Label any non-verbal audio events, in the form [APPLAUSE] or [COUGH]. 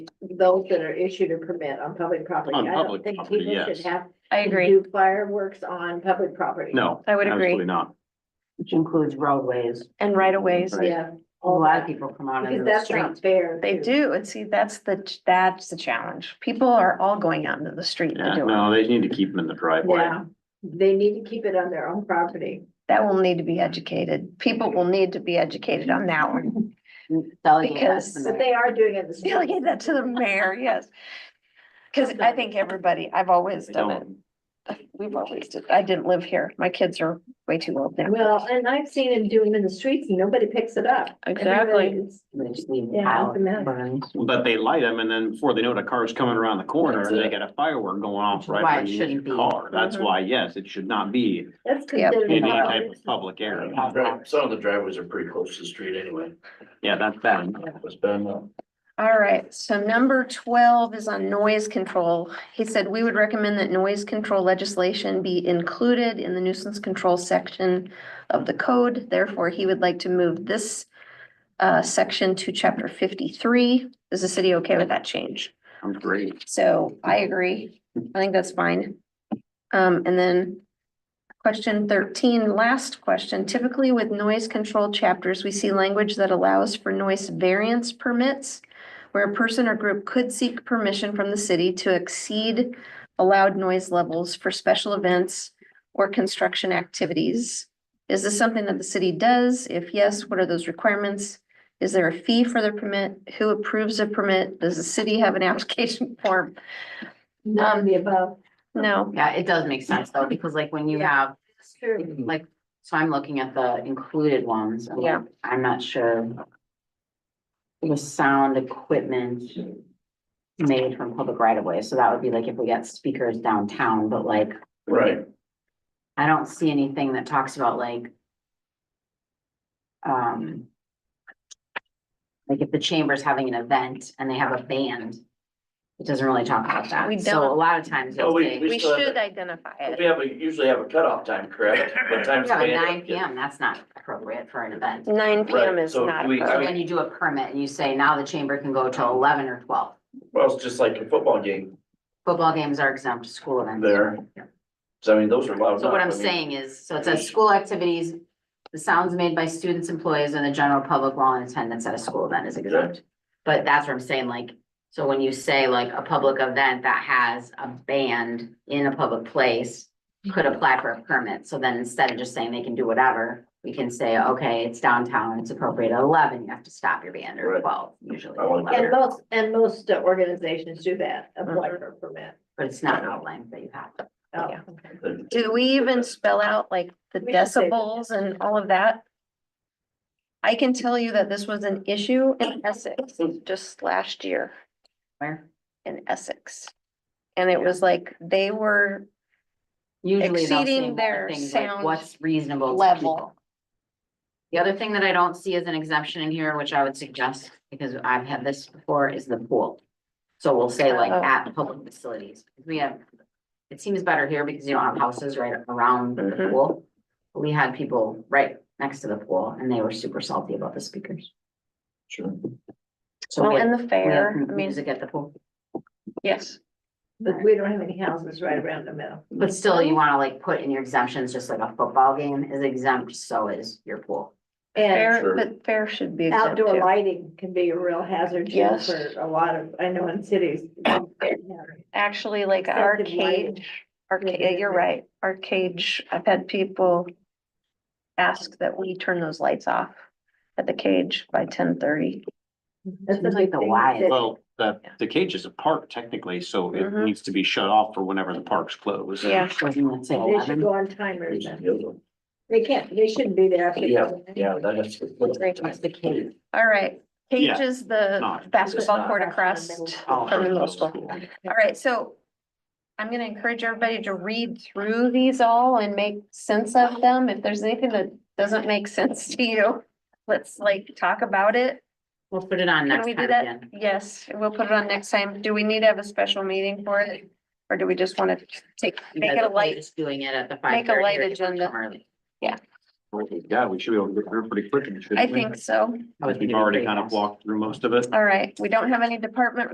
those that are issued a permit on public property. On I don't public think property, people should yes. have I to agree. Do fireworks on public property. No. I would agree. Absolutely not. which includes roadways. And right of ways. Right. Yeah. A lot of people come out into Because the that's not street. fair. They too. do. And see, that's the, ch- that's the challenge. People are all going out into the street Yeah, to do it. no, they need to keep them in the driveway. Yeah, they need to keep it on their own property. That will need to be educated. People will need to be educated on that one. [LAUGHS] Delegate Because estimate. But they are doing it. [LAUGHS] this way. Delegate that to the mayor, yes. Cause I think everybody, I've always They done it. don't. We've always did. I didn't live here. My kids are way too old now. Well, and I've seen them do them in the streets and nobody picks it up. Exactly. Everybody's- They just leave it Yeah, out, doesn't matter. burn. But they light them and then before they know it, a car's coming around the corner That's and they it. got a firework going Which off is right why it when you hit shouldn't your be. car. That's Mhm. why, yes, it should not be That's Yep. considered. in any a type of nuisance. public area. Right, Some of the driveways are pretty close to the street anyway. Yeah, that's bad. It's been, uh, All right, so number twelve is on noise control. He said we would recommend that noise control legislation be included in the nuisance control section of the code. Therefore, he would like to move this uh, section to chapter fifty-three. Is the city okay with that change? I'm great. So I agree. I think that's fine. Um, and then question thirteen, last question. Typically with noise control chapters, we see language that allows for noise variance permits where a person or group could seek permission from the city to exceed allowed noise levels for special events or construction activities. Is this something that the city does? If yes, what are those requirements? Is there a fee for the permit? Who approves a permit? Does the city have an [LAUGHS] application form? None of the above. No, Yeah, it does make sense though, because like when you Yeah. have, That's true. like, so I'm looking at the included ones. and Yeah. I'm not sure. It was sound equipment made from public right of way, so that would be like if we got speakers downtown, but like, right, I don't see anything that talks about like. Um. Like if the chamber's having an event and they have a band, it doesn't really talk about that. We So a don't. lot of times No, you'll we- say. we we still have should it. identify But it. we have a, usually have a cutoff time, correct? What time's Yeah, the but band? nine PM, that's not appropriate for an event. Nine PM Right, is so not do we- I So appropriate. then you do a permit and you say now the chamber can go till eleven or twelve. Well, it's just like a football game Football games are exempt, school events. there. So I mean, those are loud. So what enough, I'm I mean, saying is, so it says school activities, the sounds made by students, employees, and the general public while in attendance at a school event is exempt. But that's what I'm saying, like, so when you say like a public event that has a band in a public place could Mhm. apply for a permit, so then instead of just saying they can do whatever, we can say, okay, it's downtown, it's appropriate at eleven, you have to stop your band or Right. twelve, usually. I like that. And most, and most uh, organizations do that, apply for a permit. But it's not outlined that you have. to. Oh, Yeah. okay. Do we even spell out like the We should say that. decibels and all of that? I can tell you that this was an issue in Essex just last year. Where? In Essex. And it was like, they were Usually they'll Exceeding say more their things like sound what's reasonable. to people. level. The other thing that I don't see as an exemption in here, which I would suggest, because I've had this before, is the pool. So we'll say like Oh. at public facilities, we have, it seems better here because you don't have houses right around the Mhm. pool. We had people right next to the pool and they were super salty about the speakers. Sure. So Well, we in the have, we have fair, I mean, music at the pool, yes. But we don't have any houses right around the middle. but still you wanna like put in your exemptions, just like a football game is exempt, so is your pool. And Fair, Sure. but fair should be exempt outdoor too. lighting can be a real hazard too Yes. for a lot of, I know in cities. Actually, like our Excessive lighting. cage, our, ca- yeah, you're right, our cage, I've had people ask that we turn those lights off at the cage by ten thirty. That's Seems like the something why is- that- Well, the, Yeah. the cage is a park technically, so it Mhm. needs to be shut off for whenever the park's closed. Yeah. Wasn't it say They should eleven? go on timers then. They can't, they shouldn't be there. after Yeah, 11. yeah, that has to. What's the cave? All right, Yeah, cage is the not- basketball court not- across Oh, from the middle school. Cool. All right, so I'm gonna encourage everybody to read through these all and make sense of them. If there's anything that doesn't make sense to you, let's like talk about it. We'll put it on Can next we time do again. that? Yes, we'll put it on next time. Do we need to have a special meeting for it? Or do we just want to take, make it a light? Just doing it at the five make thirty. a light agenda. Yeah, we should be able to get through pretty quick. I think so. We've already kind of walked through most of it. All right, we don't have any department